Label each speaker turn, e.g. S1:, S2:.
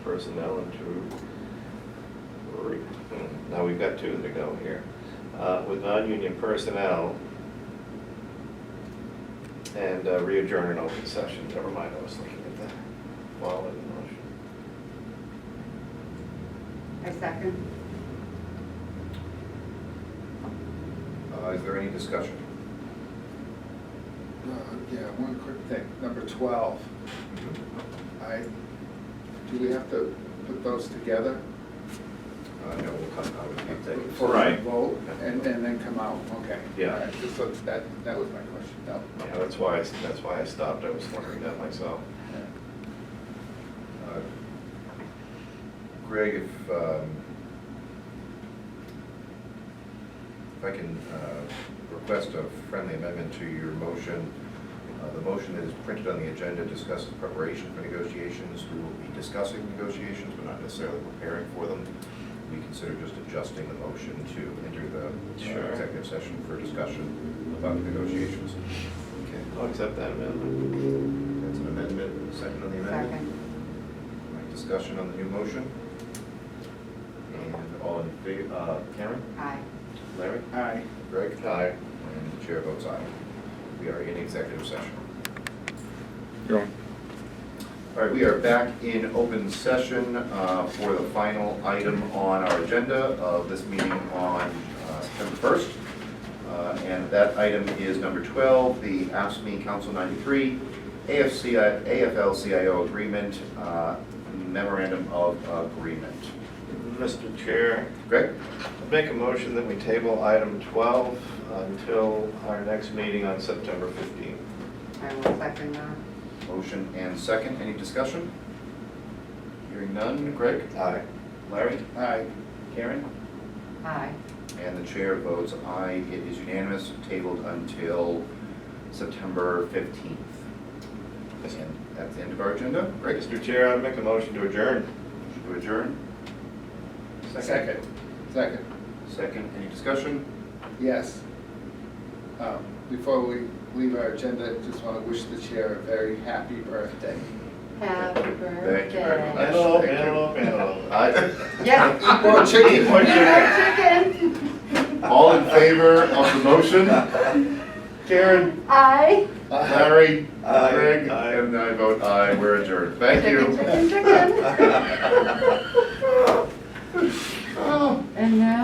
S1: personnel and to, re- now we've got two to go here. Uh, With non-union personnel and uh, readjourn an open session, never mind, I was looking at that while in the motion.
S2: I second.
S3: Uh, Is there any discussion?
S4: Uh, Yeah, one quick thing, number 12, I, do we have to put those together?
S3: Uh, No, we'll come out with the executive.
S4: For a
S1: Right.
S4: vote, and and then come out, okay.
S1: Yeah.
S4: All right, Just so that, that was my question, no.
S1: Yeah, that's why, I s- that's why I stopped, I was wondering that myself.
S3: Uh, Greg, if, um, if I can uh, request a friendly amendment to your motion. Uh, The motion that is printed on the agenda discusses preparation for negotiations. We will be discussing negotiations, but not necessarily preparing for them. We consider just adjusting the motion to enter the
S1: Sure.
S3: uh, executive session for discussion about negotiations. Okay,
S1: I'll accept that amendment.
S3: that's an amendment. Second on the amendment?
S2: Second.
S3: Any Discussion on the new motion? And all in favor, uh, Karen?
S2: Aye.
S3: Larry?
S4: Aye.
S3: Greg?
S1: Aye.
S3: And the chair votes aye. We are in executive session. All right, we are back in open session uh, for the final item on our agenda of this meeting on uh, September 1st. Uh, And that item is number 12, the AFSCME Council 93 AFC, AFL-CIO Agreement uh, Memorandum of Agreement.
S1: Mr. Chair,
S3: Greg?
S1: I'd make a motion that we table item 12 until our next meeting on September 15th.
S2: I will second that.
S3: Motion and second, any discussion? Hearing none, Greg?
S1: Aye.
S3: Larry?
S4: Aye.
S3: Karen?
S2: Aye.
S3: And the chair votes aye, it is unanimous, tabled until September 15th. And that's the end of our agenda. Greg,
S1: Mr. Chair, I'd make a motion to adjourn.
S3: motion to adjourn,
S4: Second. Second,
S3: second, any discussion?
S4: yes. Um, Before we leave our agenda, just want to wish the chair a very happy birthday.
S2: Happy
S3: Thank you very much.
S2: birthday.
S1: Antelope,
S3: Thank you.
S1: antelope, antelope. Aye.
S2: Yes.
S4: Eat more
S1: Eat more
S4: chicken.
S2: Chicken.
S3: All in favor of the motion? Karen?
S2: Aye.
S3: Larry?
S1: Aye.
S3: Greg?
S1: Aye.
S3: And I vote aye, we're adjourned, thank
S2: Chicken,
S3: you.
S2: chicken, chicken.
S3: Oh.
S2: And now